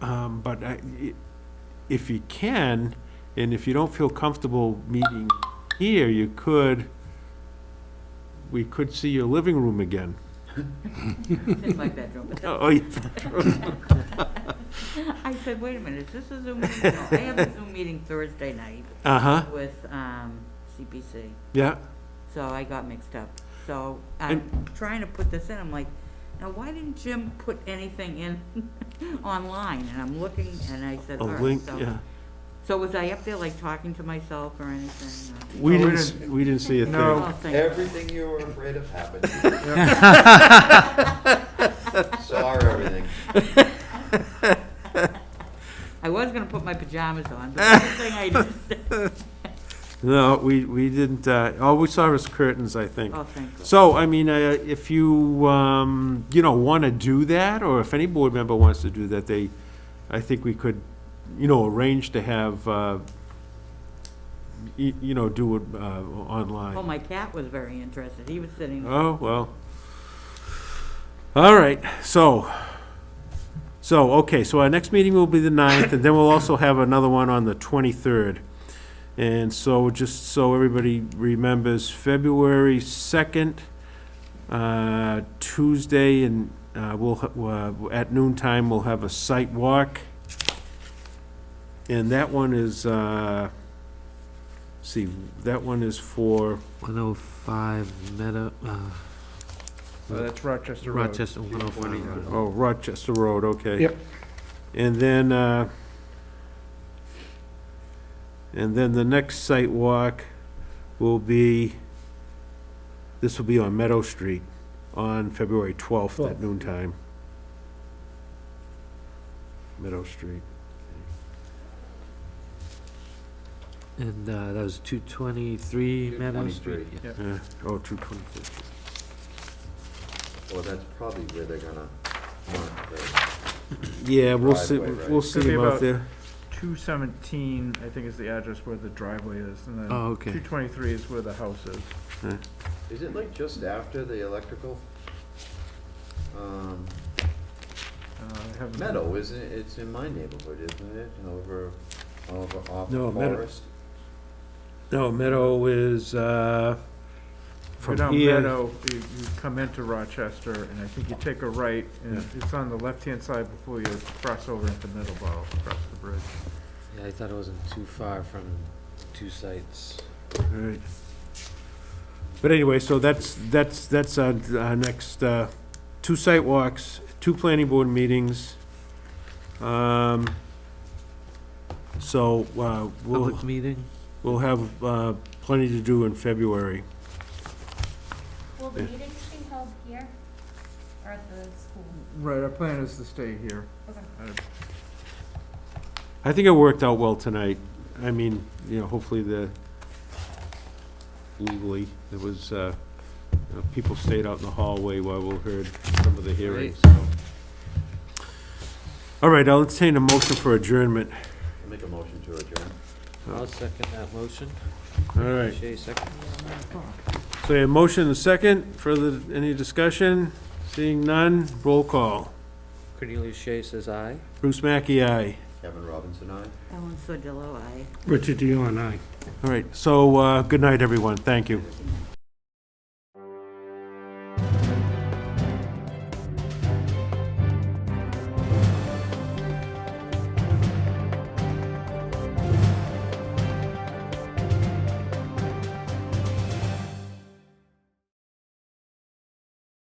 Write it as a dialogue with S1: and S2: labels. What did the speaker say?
S1: Um, But I- i- if you can, and if you don't feel comfortable meeting here, you could, we could see your living room again.
S2: in my bedroom. But
S1: Oh, yeah.
S2: I said, wait a minute, is this a Zoom meeting? No, I have a Zoom meeting Thursday night
S1: uh-huh,
S2: with um, CPC,
S1: yeah.
S2: so I got mixed up. So I'm trying to put this in, I'm like, now why didn't Jim put anything in online? And I'm looking, and I said,
S1: A
S2: all right,
S1: link,
S2: so.
S1: yeah.
S2: So was I up there like talking to myself or anything? or-
S1: We
S3: Oh, we
S1: didn't, s- we didn't see a thing.
S3: No.
S2: Oh, thank God.
S4: Everything you were afraid of happened. Saw everything.
S2: I was gonna put my pajamas on, but the thing I did,
S1: No, we, we didn't, uh, all we saw was curtains, I think.
S2: oh, thank God.
S1: So, I mean, uh, if you, um, you know, want to do that, or if any board member wants to do that, they, I think we could, you know, arrange to have, uh, y- you know, do it uh,
S2: Oh,
S1: online.
S2: my cat was very interested, he was sitting
S1: Oh, well. All right, so, so, okay, so our next meeting will be the ninth, and then we'll also have another one on the twenty-third. And so, just so everybody remembers, February second, uh, Tuesday, and, uh, we'll, ha- uh, at noon time, we'll have a site walk. And that one is, uh, see, that one is for,
S5: 105 Meadow, uh,
S3: Uh, That's Rochester Road.
S5: Rochester, 105 Road.
S1: oh, Rochester Road, okay.
S3: Yep.
S1: And then, uh, and then the next site walk will be, this will be on Meadow Street on February 12th at noon time. Meadow Street.
S5: And uh, that was 223 Meadow Street.
S4: 223.
S5: Yeah.
S1: Yeah, Oh, 223.
S4: Well, that's probably where they're gonna mark the
S1: Yeah, we'll see,
S4: Driveway, right.
S1: we'll see
S3: Could be
S1: him out
S3: about-
S1: there.
S3: 217, I think, is the address where the driveway is, and then
S5: Oh, okay.
S3: 223 is where the house is.
S4: Is it like just after the electrical? Um,
S3: Uh, I haven't-
S4: Meadow, isn't it? It's in my neighborhood, isn't it? Over, over off
S1: No, Meadow.
S4: Forest.
S1: No, Meadow is, uh,
S3: If you're
S1: from
S3: down
S1: here.
S3: Meadow, you you come into Rochester, and I think you take a right, and
S1: Yeah.
S3: it's on the left-hand side before you cross over into Middleborough, across the bridge.
S5: I thought it wasn't too far from two sites.
S1: Right. But anyway, so that's, that's, that's our, our next, uh, two site walks, two planning board meetings. Um, so, uh, we'll,
S5: Public meeting?
S1: we'll have, uh, plenty to do in February.
S6: Will the
S1: Yeah.
S6: meetings be held here or at the school?
S3: Right, our plan is to stay here.
S6: Okay.
S3: Uh,
S1: I think it worked out well tonight. I mean, you know, hopefully the legally, there was, uh, you know, people stayed out in the hallway while we heard some of the hearings, so. All right, I'll entertain a motion for adjournment.
S4: Make a motion to adjourn.
S5: I'll second that motion.
S1: All right,
S5: Shea second.
S1: so a motion and a second, further, any discussion? Seeing none, roll call.
S5: Cornelius Shea says aye.
S1: Bruce Mackey, aye.
S4: Kevin Robinson, aye.
S2: Ellen Sordillo, I.
S5: Richard Dion, aye.
S1: All right, so, uh, good night, everyone, thank you.